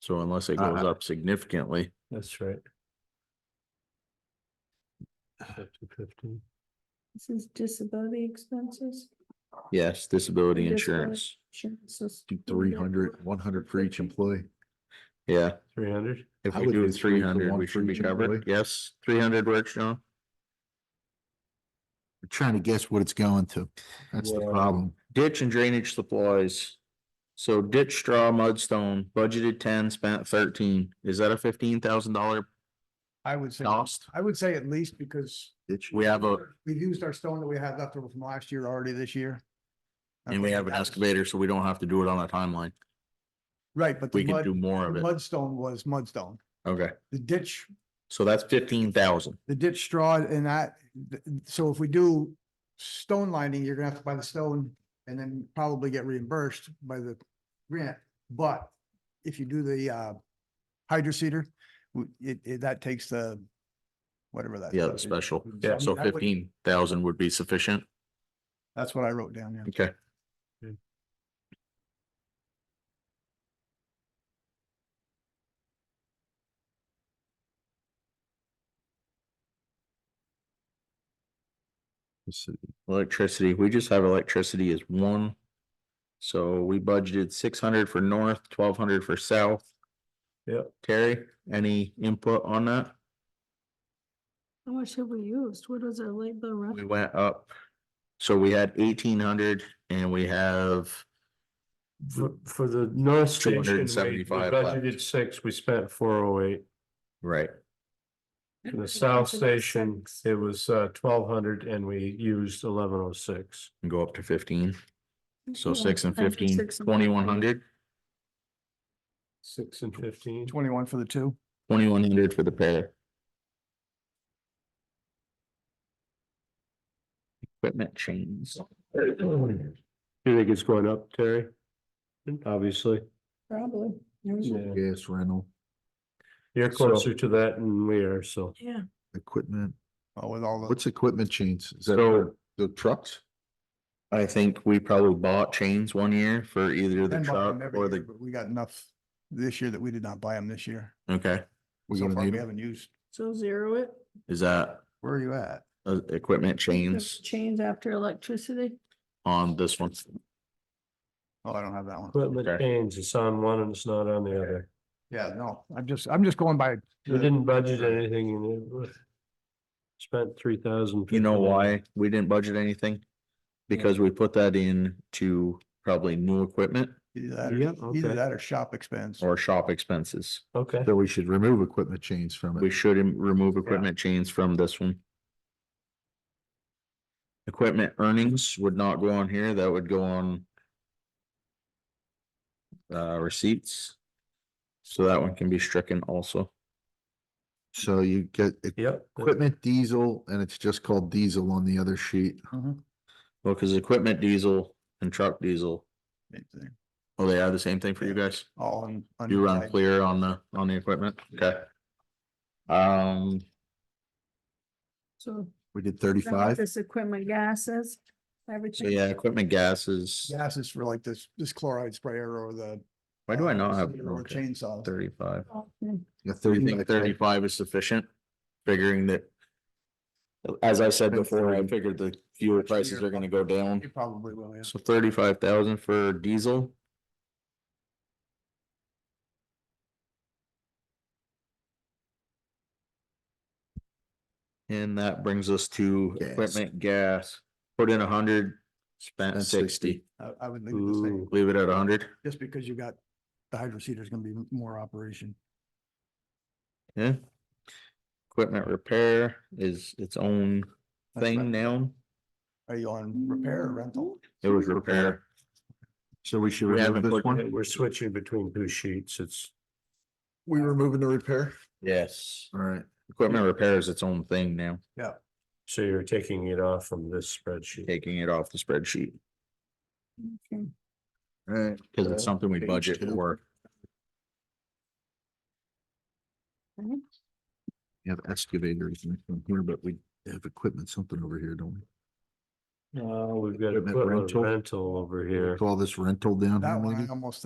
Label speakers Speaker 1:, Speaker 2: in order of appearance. Speaker 1: So unless it goes
Speaker 2: Uh-uh.
Speaker 1: up significantly,
Speaker 2: That's right. Up to fifteen.
Speaker 3: This is disability expenses.
Speaker 1: yes, disability
Speaker 3: Disability.
Speaker 1: insurance,
Speaker 3: insurances.
Speaker 4: Three hundred, one hundred for each employee.
Speaker 1: yeah.
Speaker 2: Three hundred?
Speaker 1: If
Speaker 4: I
Speaker 1: we
Speaker 4: would
Speaker 1: do
Speaker 4: do three
Speaker 1: three
Speaker 4: for
Speaker 1: hundred,
Speaker 4: one
Speaker 1: we
Speaker 4: for
Speaker 1: should be
Speaker 4: each
Speaker 1: covered.
Speaker 4: employee.
Speaker 1: Yes, three hundred works, John.
Speaker 4: We're Trying to guess what it's going to. That's the
Speaker 2: Yeah.
Speaker 4: problem.
Speaker 1: Ditch and drainage supplies. So ditch straw, mudstone, budgeted ten, spent thirteen. Is that a fifteen thousand dollar
Speaker 5: I would say,
Speaker 1: cost?
Speaker 5: I would say at least because
Speaker 1: We have a,
Speaker 5: we've used our stone that we had left over from last year already this year.
Speaker 1: and we have an
Speaker 5: That was-
Speaker 1: excavator, so we don't have to do it on a timeline.
Speaker 5: Right, but the
Speaker 1: We can
Speaker 5: mud,
Speaker 1: do more of
Speaker 5: the
Speaker 1: it.
Speaker 5: mudstone was mudstone.
Speaker 1: Okay,
Speaker 5: The ditch,
Speaker 1: so that's fifteen thousand.
Speaker 5: the ditch straw and that, th- so if we do stone lining, you're gonna have to buy the stone and then probably get reimbursed by the grant. But if you do the uh hydro cedar, it, it, that takes the whatever that.
Speaker 1: Yeah,
Speaker 5: stuff
Speaker 1: the
Speaker 5: is.
Speaker 1: special.
Speaker 2: Yeah.
Speaker 1: So
Speaker 5: That would-
Speaker 1: fifteen thousand would be sufficient.
Speaker 5: That's what I wrote down, yeah.
Speaker 1: Okay.
Speaker 5: Hmm.
Speaker 2: Okay.
Speaker 1: Electricity, we just have electricity as one. So we budgeted six hundred for north, twelve hundred for south.
Speaker 2: Yep.
Speaker 1: Terry, any input on that?
Speaker 3: How much have we used? What is our labor? rep-
Speaker 1: We went up. So we had eighteen hundred and we have
Speaker 2: For, for the North Station, we we
Speaker 1: 275 left.
Speaker 2: budgeted six, we spent four oh eight.
Speaker 1: Right,
Speaker 2: For the South Station, it was uh twelve hundred and we used eleven oh six.
Speaker 1: and go up to fifteen. So six and
Speaker 3: Yeah, I think
Speaker 1: fifteen,
Speaker 3: six and
Speaker 1: twenty-one
Speaker 3: 15.
Speaker 1: hundred,
Speaker 2: Six and fifteen.
Speaker 5: Twenty-one for the two.
Speaker 1: twenty-one hundred for the pair. Equipment chains.
Speaker 2: You think it's going up, Terry? Obviously,
Speaker 3: Probably. There was a-
Speaker 2: Yeah.
Speaker 4: Gas rental,
Speaker 2: you're
Speaker 1: So-
Speaker 2: closer to that than we are, so.
Speaker 3: Yeah,
Speaker 4: equipment.
Speaker 5: Oh, with all the,
Speaker 4: What's equipment chains? Is that
Speaker 1: So-
Speaker 4: the trucks?
Speaker 1: I think we probably bought chains one year for either the
Speaker 5: Ben bought them
Speaker 1: truck
Speaker 5: every
Speaker 1: or
Speaker 5: year,
Speaker 1: the,
Speaker 5: but we got enough this year that we did not buy them this year.
Speaker 1: okay,
Speaker 4: We
Speaker 5: So
Speaker 4: gonna
Speaker 5: far,
Speaker 4: need
Speaker 5: we
Speaker 4: 'em?
Speaker 5: haven't used.
Speaker 3: so zero it.
Speaker 1: is that
Speaker 5: Where are you at?
Speaker 1: uh equipment chains
Speaker 3: Chains after electricity.
Speaker 1: on this one?
Speaker 5: Oh, I don't have that one.
Speaker 2: Equipment
Speaker 1: Okay.
Speaker 2: change, it's on one and it's not on the other.
Speaker 5: Yeah, no, I'm just, I'm just going by.
Speaker 2: We didn't budget anything and it spent three thousand.
Speaker 1: You know why we didn't budget anything? Because we put that in to probably new equipment
Speaker 5: Either that or-
Speaker 2: Yep,
Speaker 5: either
Speaker 2: okay.
Speaker 5: that or shop expense.
Speaker 1: or shop expenses.
Speaker 2: Okay,
Speaker 4: So we should remove equipment chains from
Speaker 1: We
Speaker 4: it.
Speaker 1: should im- remove equipment chains from this one. Equipment earnings would not go on here, that would go on. Uh, receipts. So that one can be stricken also.
Speaker 4: So you get e-
Speaker 2: yep.
Speaker 4: equipment diesel and it's just called diesel on the other sheet.
Speaker 5: Mhm,
Speaker 1: Well, cause equipment diesel and truck diesel,
Speaker 5: same thing,
Speaker 1: oh, they are the same thing for you guys?
Speaker 5: All on. on
Speaker 1: You
Speaker 5: your
Speaker 1: run
Speaker 5: side.
Speaker 1: clear on the, on the equipment, okay? Um,
Speaker 3: So
Speaker 4: We did
Speaker 3: I don't know what
Speaker 4: thirty-five.
Speaker 3: this equipment gases,
Speaker 1: so
Speaker 3: everything.
Speaker 1: yeah, equipment gases,
Speaker 5: Gas is for like this, this chloride sprayer or the. uh,
Speaker 1: why do I not have?
Speaker 5: Or the
Speaker 1: okay,
Speaker 5: chainsaw.
Speaker 1: Thirty-five.
Speaker 3: Oh, hmm,
Speaker 4: Yeah,
Speaker 1: Do you think
Speaker 4: 35.
Speaker 1: thirty-five is sufficient, figuring that? As I said
Speaker 4: Depends
Speaker 1: before, I
Speaker 4: on-
Speaker 1: figured the fuel prices are gonna go down,
Speaker 5: You probably will, yeah.
Speaker 1: so thirty-five thousand for diesel. And that brings us to
Speaker 4: Gas.
Speaker 1: equipment, gas, put in a hundred, spent
Speaker 4: Spent
Speaker 1: sixty,
Speaker 4: 60.
Speaker 5: I, I would leave it the same,
Speaker 2: Ooh.
Speaker 1: leave it at a hundred,
Speaker 5: just because you got, the hydro is gonna be more operation.
Speaker 1: yeah? Equipment repair is its own
Speaker 5: That's right.
Speaker 1: thing now,
Speaker 5: Are you on repair or rental?
Speaker 1: it was repair.
Speaker 4: So we should
Speaker 1: We haven't
Speaker 4: remove this
Speaker 1: put-
Speaker 4: one?
Speaker 2: We're switching between two sheets, it's.
Speaker 4: We removing the repair?
Speaker 1: Yes,
Speaker 4: All right.
Speaker 1: equipment repair is its own thing now,
Speaker 2: So you're taking it off from this spreadsheet.
Speaker 1: taking it off the spreadsheet,
Speaker 3: Okay.
Speaker 4: All right.
Speaker 1: because it's something we
Speaker 4: Page
Speaker 1: budget
Speaker 4: two.
Speaker 1: for.
Speaker 4: You have excavators and from here, but we have equipment, something over here, don't
Speaker 2: Uh, we've got
Speaker 4: Equipment
Speaker 2: equipment
Speaker 4: rental.
Speaker 2: rental over
Speaker 4: we?
Speaker 2: here.
Speaker 4: Call this rental down. here
Speaker 5: That one,
Speaker 4: maybe?
Speaker 5: I almost